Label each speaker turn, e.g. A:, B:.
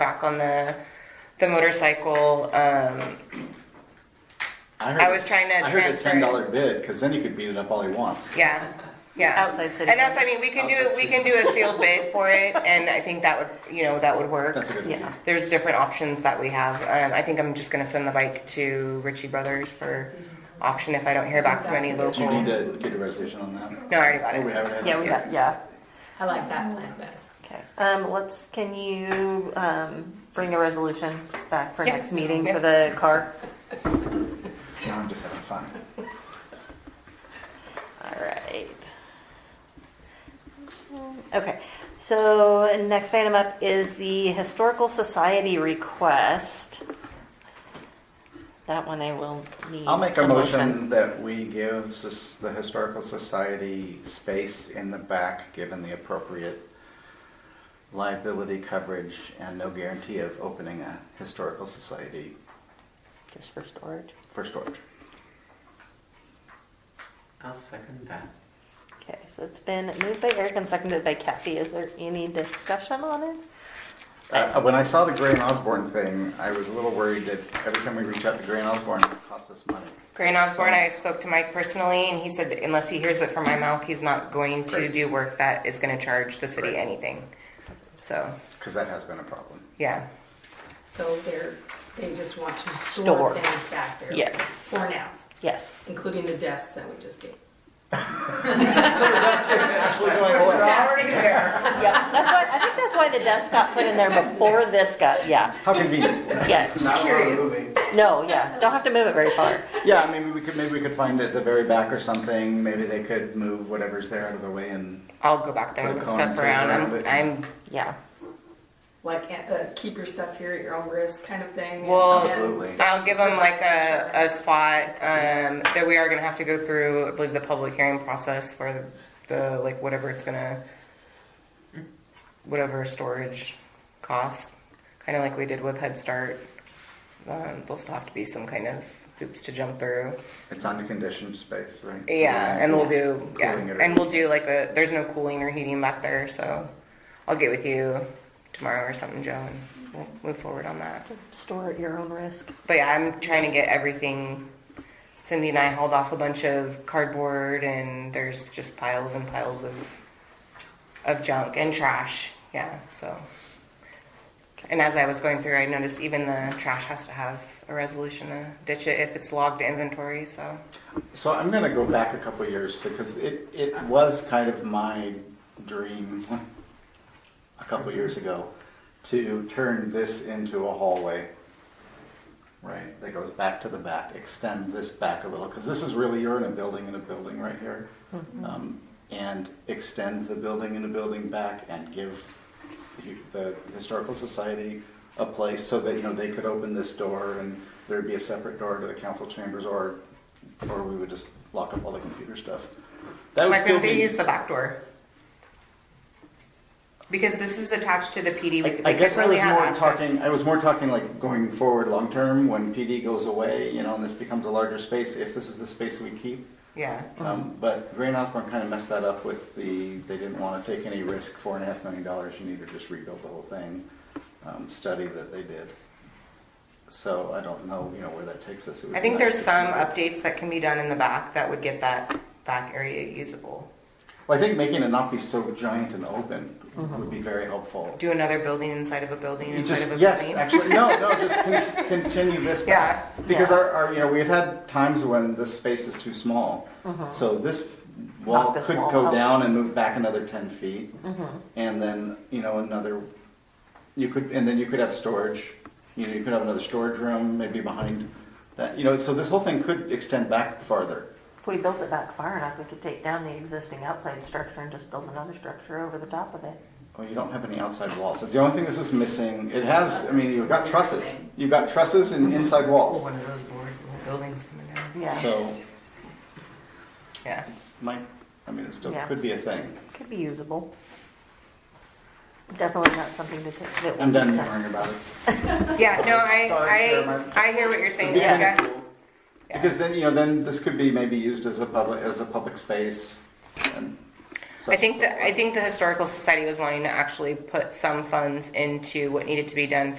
A: back on the the motorcycle. Um,
B: I, heard
A: I was
B: it's-
A: trying to
B: I heard a
A: transfer it.
B: ten dollar bid because then he could beat it up all he wants.
A: yeah, yeah.
C: Outside city
A: And that's I mean we can do
B: Outside
A: we
B: city.
A: can do a sealed bid for it, and I think that would you know that would work.
B: That's a good
C: Yeah.
B: idea.
A: There's different options that we have. Um, I think I'm just gonna send the bike to Ritchie Brothers for auction if I don't hear back from any
B: Do you
A: local.
B: need
A: No,
B: to get a resolution on that?
A: I already got
B: Oh, we
A: it.
B: haven't had.
C: Yeah, we got, yeah.
D: I like that plan better.
C: Okay. Um, let's, can you, um, bring a resolution back for
A: Yeah.
C: next meeting
A: Yeah.
C: for the car?
B: Yeah, I'm just having fun.
C: All right. Okay, so next item up is the Historical Society request. That one I will need.
E: I'll make a motion that we give sus- the Historical Society space in the back, given the appropriate liability coverage and no guarantee of opening a Historical Society
C: Just for storage.
E: for storage.
F: I'll second that.
C: Okay, so it's been moved by Eric and seconded by Kathy. Is there any discussion on it?
E: Uh, When I saw the Gray and Osborne thing, I was a little worried that every time we reach out to Gray and Osborne, it costs us money.
A: Gray Osborne, I spoke to Mike personally, and he said that unless he hears it from my mouth, he's not going to
E: Great.
A: do work that is going to charge the city
E: Great.
A: anything. So,
E: Because that has been a problem.
A: yeah.
D: So they're, they just want to
C: Store.
D: store things back there.
C: Yes.
D: For now,
C: Yes.
D: including the desks that we just gave.
E: Actually, going away.
D: already there.
C: Yeah, that's why, I think that's why the desk got put in there before this got, yeah,
E: How convenient.
C: yeah.
D: Just curious.
C: No, yeah, don't have to move it very far.
E: Yeah, maybe we could, maybe we could find it at the very back or something. Maybe they could move whatever's there out of the way and
A: I'll go back there
E: Put a
A: and
E: cone
A: stuff
E: thing
A: around.
E: around
A: I'm,
E: it.
A: I'm
C: Yeah.
D: Like, uh, keep your stuff here at your own risk kind of thing.
A: Well-
D: And-
E: Absolutely.
A: I'll give them like a, a spot um, that we are going to have to go through. I believe the public hearing process for the like whatever it's going to whatever storage cost, kind of like we did with Head Start. Um, there'll still have to be some kind of hoops to jump through.
E: It's under conditioned space, right?
A: Yeah, and we'll do yeah,
E: Cooling it
A: and
E: or-
A: we'll do like a. There's no cooling or heating back there, so I'll get with you tomorrow or something, Joe, and we'll move forward on that.
C: Store at your own risk.
A: But yeah, I'm trying to get everything. Cindy and I hauled off a bunch of cardboard, and there's just piles and piles of of junk and trash. Yeah, so. And as I was going through, I noticed even the trash has to have a resolution to ditch it if it's logged to inventory. So
E: So I'm going to go back a couple years too, because it, it was kind of my dream a couple years ago to turn this into a hallway, right? That goes back to the back, extend this back a little, because this is really, you're in a building in a building right here. Um, and extend the building in a building back and give the- the Historical Society a place so that, you know, they could open this door and there'd be a separate door to the council chambers or, or we would just lock up all the computer stuff. That would
A: why
E: still
A: couldn't they
E: be.
A: use the back door? Because this is attached to the PD.
E: I
A: We,
E: I
A: we
E: guess I
A: couldn't really
E: was
A: have
E: more
A: access.
E: talking, I was more talking like going forward, long-term, when PD goes away, you know, and this becomes a larger space, if this is the space we keep.
A: Yeah.
E: Um,
A: Mm-hmm.
E: But Gray and Osborne kind of messed that up with the, they didn't want to take any risk, four and a half million dollars, you need to just rebuild the whole thing, um, study that they did. So I don't know, you know, where that takes us. It would
A: I
E: be
A: think
E: nice
A: there's
E: to
A: some
E: keep it.
A: updates that can be done in the back that would get that back area usable.
E: Well, I think making it not be so giant and open
A: Mm-hmm.
E: would be very helpful.
A: Do another building inside of a building
E: You
A: inside
E: just,
A: of a
E: yes,
A: building.
E: actually, no, no, just con- continue this back.
A: Yeah,
E: Because
A: yeah.
E: our, our, you know, we've had times when this space is too small.
A: Mm-hmm.
E: So this wall
C: Knock this
E: could
C: wall
E: go
C: out.
E: down and move back another ten feet.
A: Mm-hmm.
E: And then, you know, another, you could, and then you could have storage. You know, you could have another storage room, maybe behind that, you know, so this whole thing could extend back farther.
C: If we built it back far enough, we could take down the existing outside structure and just build another structure over the top of it.
E: Well, you don't have any outside walls. That's the only thing this is missing. It has, I mean, you've got trusses. You've got trusses and inside
A: Oh,
E: walls.
A: one of those boards, the whole building's coming down.
C: Yeah,
E: So.
A: Yeah.
E: It's my, I mean, it still
C: Yeah.
E: could be a thing.
C: could be usable. Definitely not something to take. that
E: I'm
C: we'll
E: done
C: discuss.
E: worrying about it.
A: Yeah, no,
E: Sorry,
A: I,
E: Chairman.
A: I, I hear what you're
E: It'd
A: saying.
E: be
A: Yeah.
E: kinda cool. Because then, you know, then this could be maybe used as a public, as a public space. and
A: I
E: such
A: think
E: and so
A: that, I think the Historical Society was wanting to actually put some funds into what needed to be done for